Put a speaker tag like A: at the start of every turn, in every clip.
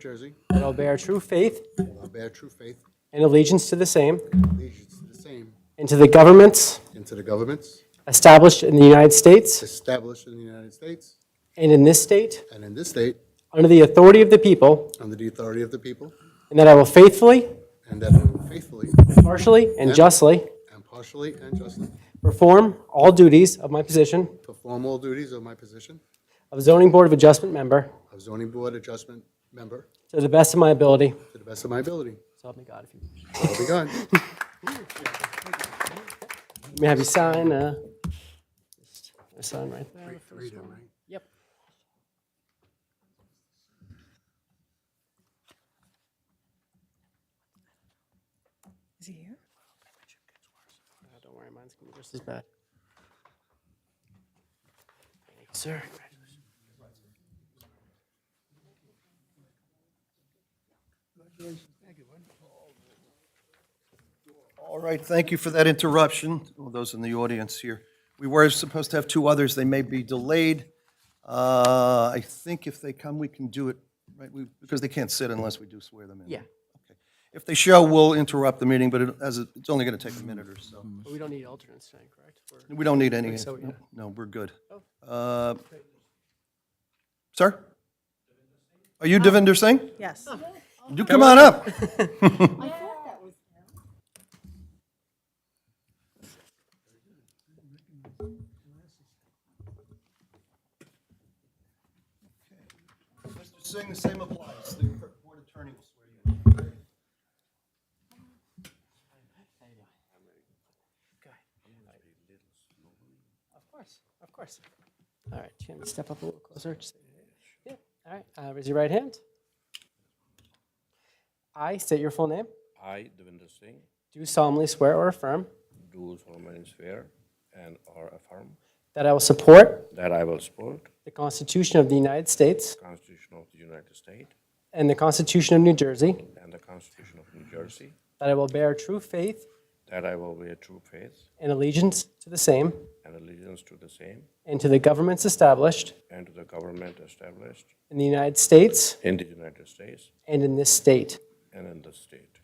A: Jersey,
B: that I will bear true faith
A: will bear true faith,
B: and allegiance to the same
A: allegiance to the same,
B: and to the governments
A: and to the governments
B: established in the United States
A: established in the United States
B: and in this state
A: and in this state,
B: under the authority of the people,
A: under the authority of the people,
B: and that I will faithfully,
A: and that I will faithfully,
B: partially, and justly
A: impartially, and justly
B: perform all duties of my position
A: perform all duties of my position
B: of zoning board of adjustment member
A: of zoning board adjustment member
B: to the best of my ability.
A: to the best of my ability.
B: So help me God. If you
A: I'll be gone.
B: Let me have you sign, uh, just a sign right there.
A: Freedom, right?
B: Yep.
C: Is he here?
B: Uh, Don't worry, mine's gonna be just as bad. Thank you, Sir, congratulations.
D: All right, thank you for that interruption, all those in the audience here. We were supposed to have two others, they may be delayed. Uh, I think if they come, we can do it, right, we- because they can't sit unless we do swear them in.
B: Yeah.
D: Okay. If they show, we'll interrupt the meeting, but it- as it- it's only going to take a minute or so.
B: But we don't need alternates tonight, correct? We're-
D: We don't need any,
B: Mm-hmm. so, yeah.
D: no, no, we're good. Uh, Sir? Are you Devinder Singh?
C: Yes.
D: You come on up. Mr. Singh, the same applies. The board attorney will swear you in.
B: Of course, of course. All right, you want me to step up a little closer? Just- Yeah, all right, uh, raise your right hand. I state your full name,
E: I, Devinder Singh,
B: do solemnly swear or affirm
E: do solemnly swear and or affirm
B: that I will support
E: that I will support
B: the Constitution of the United States
E: the Constitution of the United States
B: and the Constitution of New Jersey,
E: and the Constitution of New Jersey,
B: that I will bear true faith
E: that I will bear true faith
B: and allegiance to the same
E: and allegiance to the same
B: and to the governments established
E: and to the government established
B: in the United States
E: in the United States
B: and in this state,
E: and in the state,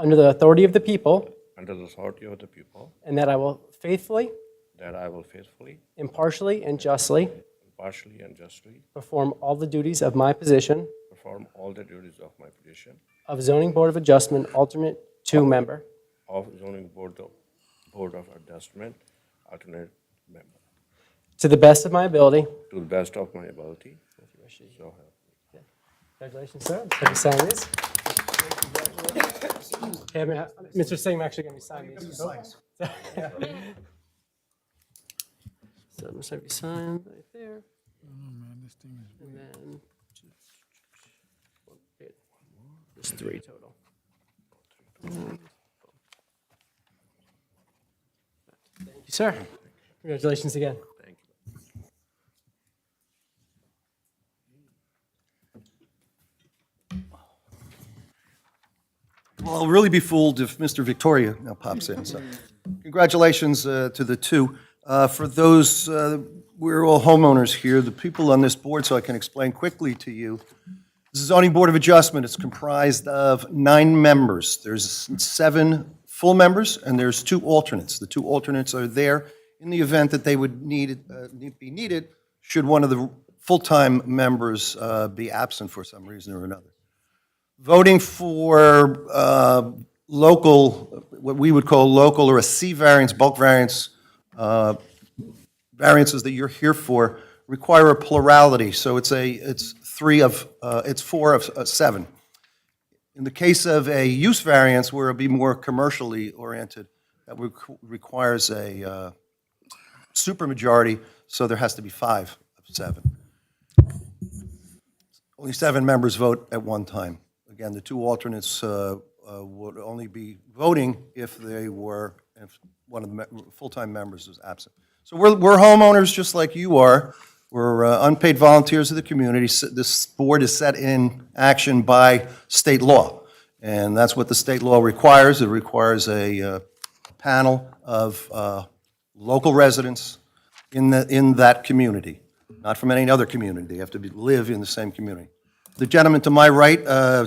B: under the authority of the people,
E: under the authority of the people,
B: and that I will faithfully,
E: that I will faithfully,
B: impartially, and justly
E: impartially, and justly
B: perform all the duties of my position
E: perform all the duties of my position
B: of zoning board of adjustment alternate two member
E: of zoning board of, board of adjustment alternate member
B: to the best of my ability.
E: to the best of my ability. So help me.
B: Congratulations, sir. Have you sign these? Okay, I mean, uh, Mr. Singh, I'm actually going to sign these. So I'm going to have you sign right there. Oh, man, this thing is And then. There's three total. Thank you, sir. Congratulations again.
D: Well, I'll really be fooled if Mr. Victoria now pops in, so congratulations uh, to the two. Uh, For those, uh, we're all homeowners here, the people on this board, so I can explain quickly to you. The zoning board of adjustment is comprised of nine members. There's seven full members, and there's two alternates. The two alternates are there in the event that they would need, uh, need- be needed, should one of the full-time members uh, be absent for some reason or another voting for uh, local, what we would call local or a C variance, bulk variance, uh, variances that you're here for require a plurality. So it's a, it's three of, uh, it's four of uh, seven. In the case of a use variance where it'd be more commercially oriented, that requ- requires a uh, supermajority, so there has to be five of seven. Only seven members vote at one time. Again, the two alternates uh, uh, would only be voting if they were, if one of the me- full-time members was absent. So we're we're homeowners just like you are. We're uh, unpaid volunteers of the community. S- This board is set in action by state law, and that's what the state law requires. It requires a uh, panel of uh, local residents in the in that community not from any other community. They have to be, live in the same community. The gentleman to my right, uh,